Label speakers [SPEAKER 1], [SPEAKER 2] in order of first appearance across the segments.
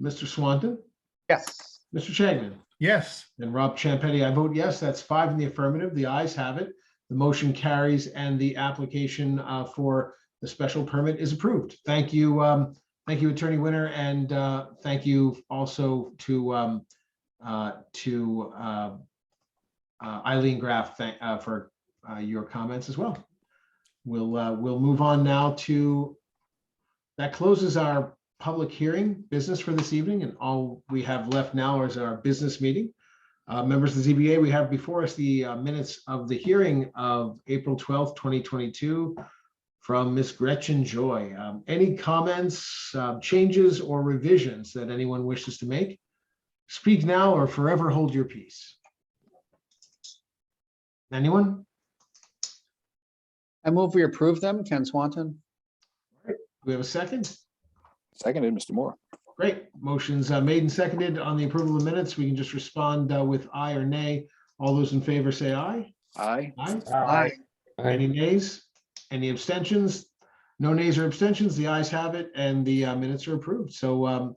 [SPEAKER 1] Mr. Swanton,
[SPEAKER 2] Yes.
[SPEAKER 1] Mr. Shagnon,
[SPEAKER 3] Yes.
[SPEAKER 1] and Rob Champetti, I vote yes. That's five in the affirmative. The ayes have it. The motion carries and the application uh, for the special permit is approved. Thank you. um, Thank you, Attorney Winter, and uh, thank you also to um, uh, to uh, uh, Eileen Graff thank- uh, for uh, your comments as well. We'll uh, we'll move on now to that closes our public hearing business for this evening, and all we have left now is our business meeting. Uh, Members of the ZBA, we have before us the uh, minutes of the hearing of April 12th, 2022 from Ms. Gretchen Joy. Um, Any comments, uh, changes, or revisions that anyone wishes to make? Speak now or forever hold your peace. Anyone?
[SPEAKER 2] I move we approve them. Ken Swanton?
[SPEAKER 1] Do we have a second?
[SPEAKER 4] Seconded, Mr. Moore.
[SPEAKER 1] Great. Motion's uh, made and seconded on the approval of minutes. We can just respond uh, with aye or nay. All those in favor say aye.
[SPEAKER 4] Aye.
[SPEAKER 1] Aye.
[SPEAKER 2] Aye.
[SPEAKER 1] Any nays? Any abstentions? No nays or abstentions? The ayes have it and the uh, minutes are approved. So um,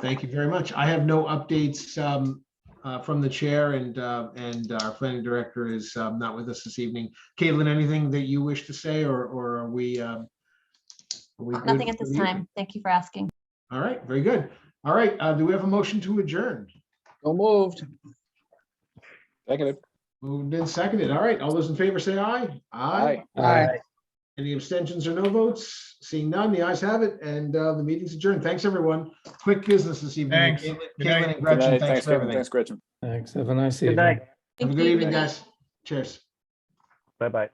[SPEAKER 1] thank you very much. I have no updates um, uh, from the chair and, uh, and our planning director is um, not with us this evening. Caitlin, anything that you wish to say or, or are we? um, are we good
[SPEAKER 5] Nothing at
[SPEAKER 1] for
[SPEAKER 5] this
[SPEAKER 1] the evening?
[SPEAKER 5] time. Thank you for asking.
[SPEAKER 1] All right, very good. All right, uh, do we have a motion to adjourn?
[SPEAKER 2] So moved.
[SPEAKER 4] Seconded.
[SPEAKER 1] Moved and seconded. All right, all those in favor say aye. Any abstentions or no votes? Seeing none, the ayes have it, and uh, the meeting's adjourned. Thanks, everyone. Quick business this evening.
[SPEAKER 3] Thanks.
[SPEAKER 1] Caitlin-
[SPEAKER 3] Good night.
[SPEAKER 1] Caitlin and
[SPEAKER 4] Good
[SPEAKER 1] Gretchen,
[SPEAKER 4] night.
[SPEAKER 1] thanks
[SPEAKER 4] Thanks,
[SPEAKER 1] for
[SPEAKER 4] Kevin.
[SPEAKER 1] everything.
[SPEAKER 4] Thanks, Gretchen.
[SPEAKER 6] Thanks. Have a nice evening.
[SPEAKER 1] Have a
[SPEAKER 5] Thank
[SPEAKER 1] good
[SPEAKER 5] you.
[SPEAKER 1] evening, guys. Cheers.
[SPEAKER 6] Bye-bye.